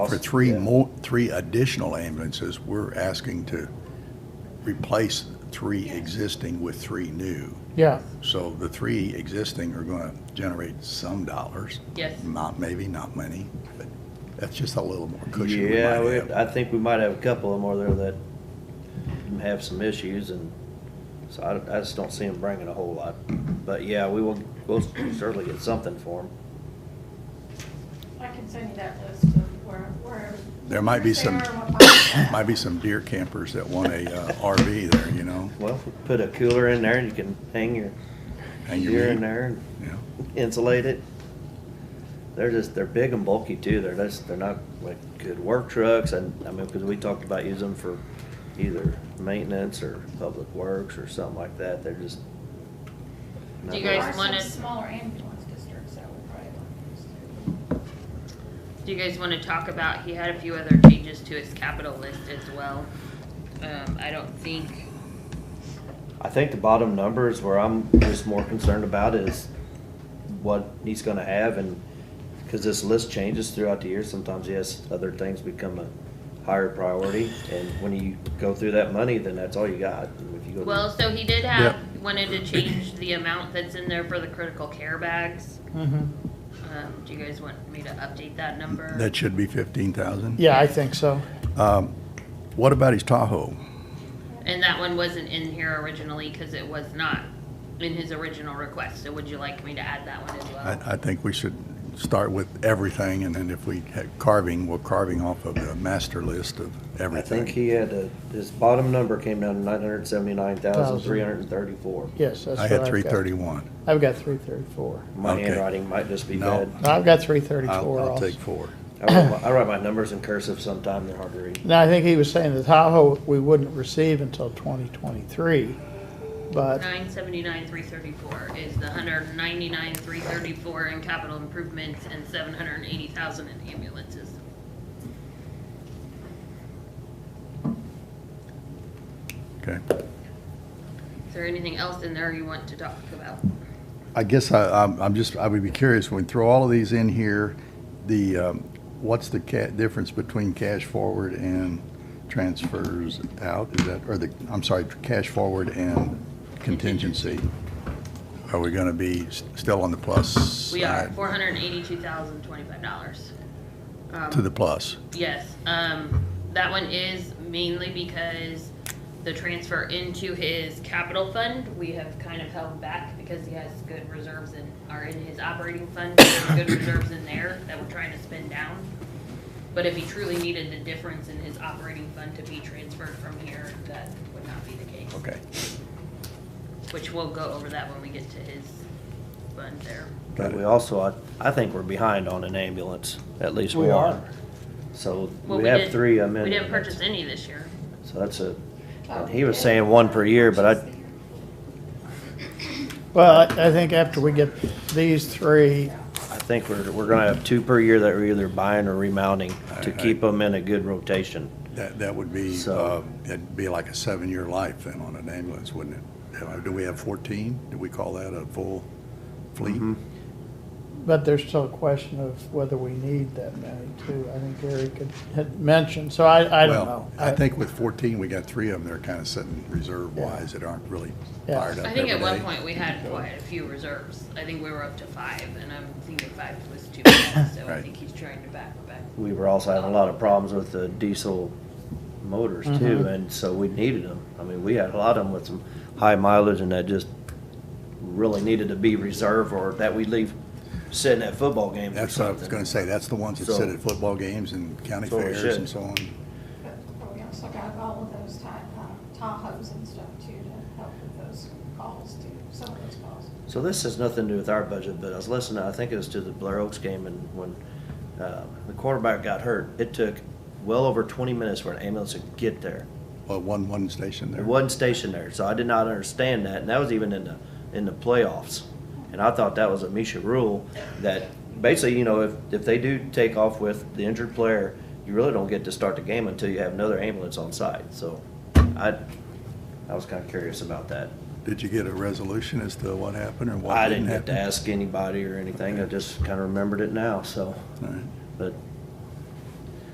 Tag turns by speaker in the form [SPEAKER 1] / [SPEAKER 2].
[SPEAKER 1] For three more, three additional ambulances, we're asking to replace three existing with three new.
[SPEAKER 2] Yeah,
[SPEAKER 1] So the three existing are gonna generate some dollars.
[SPEAKER 3] Yes.
[SPEAKER 1] Not, maybe not many, but that's just a little more cushion we
[SPEAKER 4] Yeah,
[SPEAKER 1] might
[SPEAKER 4] we,
[SPEAKER 1] have.
[SPEAKER 4] I think we might have a couple of them over there that have some issues and so I, I just don't see them bringing a whole lot. But yeah, we will, we'll certainly get something for them.
[SPEAKER 5] I can send you that list of where, where.
[SPEAKER 1] There might be
[SPEAKER 5] where they
[SPEAKER 1] some-
[SPEAKER 5] are and what model.
[SPEAKER 1] Might be some deer campers that want a uh, RV there, you know?
[SPEAKER 4] Well, put a cooler in there and you can hang your
[SPEAKER 1] Hang your
[SPEAKER 4] deer
[SPEAKER 1] meat.
[SPEAKER 4] in there and
[SPEAKER 1] Yeah.
[SPEAKER 4] insulate it. They're just, they're big and bulky too. They're just, they're not like good work trucks and, I mean, because we talked about using them for either maintenance or public works or something like that. They're just.
[SPEAKER 3] Do you
[SPEAKER 5] There
[SPEAKER 3] guys
[SPEAKER 5] are
[SPEAKER 3] wanna-
[SPEAKER 5] some Smaller ambulance districts that would probably want these too.
[SPEAKER 3] Do you guys want to talk about, he had a few other changes to his capital list as well. Um, I don't think,
[SPEAKER 4] I think the bottom number is where I'm just more concerned about is what he's gonna have and, cause this list changes throughout the year. Sometimes, yes, other things become a higher priority. And when you go through that money, then that's all you got. And if you go-
[SPEAKER 3] well, so he did have, wanted to change the amount that's in there for the critical care bags.
[SPEAKER 2] mhm.
[SPEAKER 3] Um, do you guys want me to update that number?
[SPEAKER 1] That should be fifteen thousand. Um,
[SPEAKER 2] yeah, I think so.
[SPEAKER 1] What about his Tahoe?
[SPEAKER 3] And that one wasn't in here originally because it was not in his original request, so would you like me to add that one as well?
[SPEAKER 1] I, I think we should start with everything, and then if we had carving, we're carving off of the master list of
[SPEAKER 4] I
[SPEAKER 1] everything.
[SPEAKER 4] think he had a, his bottom number came down to nine hundred seventy-nine thousand, three hundred and thirty-four.
[SPEAKER 2] Yes, that's
[SPEAKER 1] I
[SPEAKER 2] what I've
[SPEAKER 1] had
[SPEAKER 2] got.
[SPEAKER 1] three thirty-one.
[SPEAKER 2] I've got three thirty-four.
[SPEAKER 4] My
[SPEAKER 1] Okay.
[SPEAKER 4] handwriting might just be
[SPEAKER 1] No.
[SPEAKER 4] bad.
[SPEAKER 2] I've got three
[SPEAKER 1] I'll,
[SPEAKER 2] thirty-four
[SPEAKER 1] I'll
[SPEAKER 2] also.
[SPEAKER 1] take four.
[SPEAKER 4] I write my- I write my numbers in cursive sometime, they're hard to read.
[SPEAKER 2] Now, I think he was saying the Tahoe we wouldn't receive until twenty twenty-three, but,
[SPEAKER 3] Nine seventy-nine, three thirty-four is the hundred ninety-nine, three thirty-four in capital improvements and seven hundred and eighty thousand in ambulances.
[SPEAKER 1] Okay.
[SPEAKER 3] Is there anything else in there you want to talk about?
[SPEAKER 1] I guess I, I'm, I'm just, I would be curious, when we throw all of these in here, the, um, what's the ca, difference between cash forward and transfers out? Is that, or the, I'm sorry, cash forward and contingency? Are we gonna be s- still on the plus side?
[SPEAKER 3] We are four hundred and eighty-two thousand, twenty-five dollars. Um,
[SPEAKER 1] To the plus.
[SPEAKER 3] Yes, um, that one is mainly because the transfer into his capital fund, we have kind of held back because he has good reserves in, are in his operating fund, there's good reserves in there that we're trying to spend down. But if he truly needed the difference in his operating fund to be transferred from here, that would not be the case.
[SPEAKER 1] Okay,
[SPEAKER 3] Which we'll go over that when we get to his fund there.
[SPEAKER 1] Got
[SPEAKER 4] But
[SPEAKER 1] it.
[SPEAKER 4] we also, I, I think we're behind on an ambulance, at least
[SPEAKER 2] We
[SPEAKER 4] one.
[SPEAKER 2] are.
[SPEAKER 4] So
[SPEAKER 3] Well,
[SPEAKER 4] we have
[SPEAKER 3] did-
[SPEAKER 4] three amendments.
[SPEAKER 3] We didn't purchase any this year.
[SPEAKER 4] So that's a, and he was saying one per year, but I,
[SPEAKER 2] well, I, I think after we get these three,
[SPEAKER 4] I think we're, we're gonna have two per year that we're either buying or remounting to
[SPEAKER 1] I- I-
[SPEAKER 4] keep them in a good rotation.
[SPEAKER 1] that, that would be, uh,
[SPEAKER 4] So-
[SPEAKER 1] it'd be like a seven-year life then on an ambulance, wouldn't it? Uh, Do we have fourteen? Do we call that a full fleet?
[SPEAKER 4] Mm-hmm.
[SPEAKER 2] but there's still a question of whether we need that many too. I think Gary could, had mentioned, so I, I don't know.
[SPEAKER 1] Well, I think with 14, we got three of them that are kind of sitting reserve-wise that aren't really
[SPEAKER 2] Yeah.
[SPEAKER 1] fired up
[SPEAKER 3] I
[SPEAKER 1] every
[SPEAKER 3] think at one
[SPEAKER 1] day.
[SPEAKER 3] point we had quite a few reserves. I think we were up to five, and I'm thinking five was too many, so I
[SPEAKER 1] Right.
[SPEAKER 3] think he's trying to back back.
[SPEAKER 4] We were also having a lot of problems with the diesel motors too, and so we needed them. I mean, we had a lot of them with some high mileage and that just really needed to be reserved or that we leave sitting at football games or
[SPEAKER 1] That's what I was
[SPEAKER 4] something.
[SPEAKER 1] gonna say, that's the ones that
[SPEAKER 4] So-
[SPEAKER 1] sit at football games and county
[SPEAKER 4] So we
[SPEAKER 1] fairs
[SPEAKER 4] should.
[SPEAKER 1] and so on.
[SPEAKER 5] But we also got all of those Ta- uh, Tahoes and stuff too to help with those calls too, some of those calls.
[SPEAKER 4] So this has nothing to do with our budget, but I was listening, I think it was to the Blair Oaks game and when, uh, the quarterback got hurt, it took well over twenty minutes for an ambulance to get there.
[SPEAKER 1] Well, one, one station
[SPEAKER 4] There
[SPEAKER 1] there.
[SPEAKER 4] wasn't stationed there, so I did not understand that, and that was even in the, in the playoffs. And I thought that was a Misha rule, that basically, you know, if, if they do take off with the injured player, you really don't get to start the game until you have another ambulance on site, so I, I was kinda curious about that.
[SPEAKER 1] Did you get a resolution as to what happened or what
[SPEAKER 4] I
[SPEAKER 1] didn't
[SPEAKER 4] didn't have to
[SPEAKER 1] happen?
[SPEAKER 4] ask anybody or anything, I just kinda remembered it now, so,
[SPEAKER 1] All right.
[SPEAKER 4] but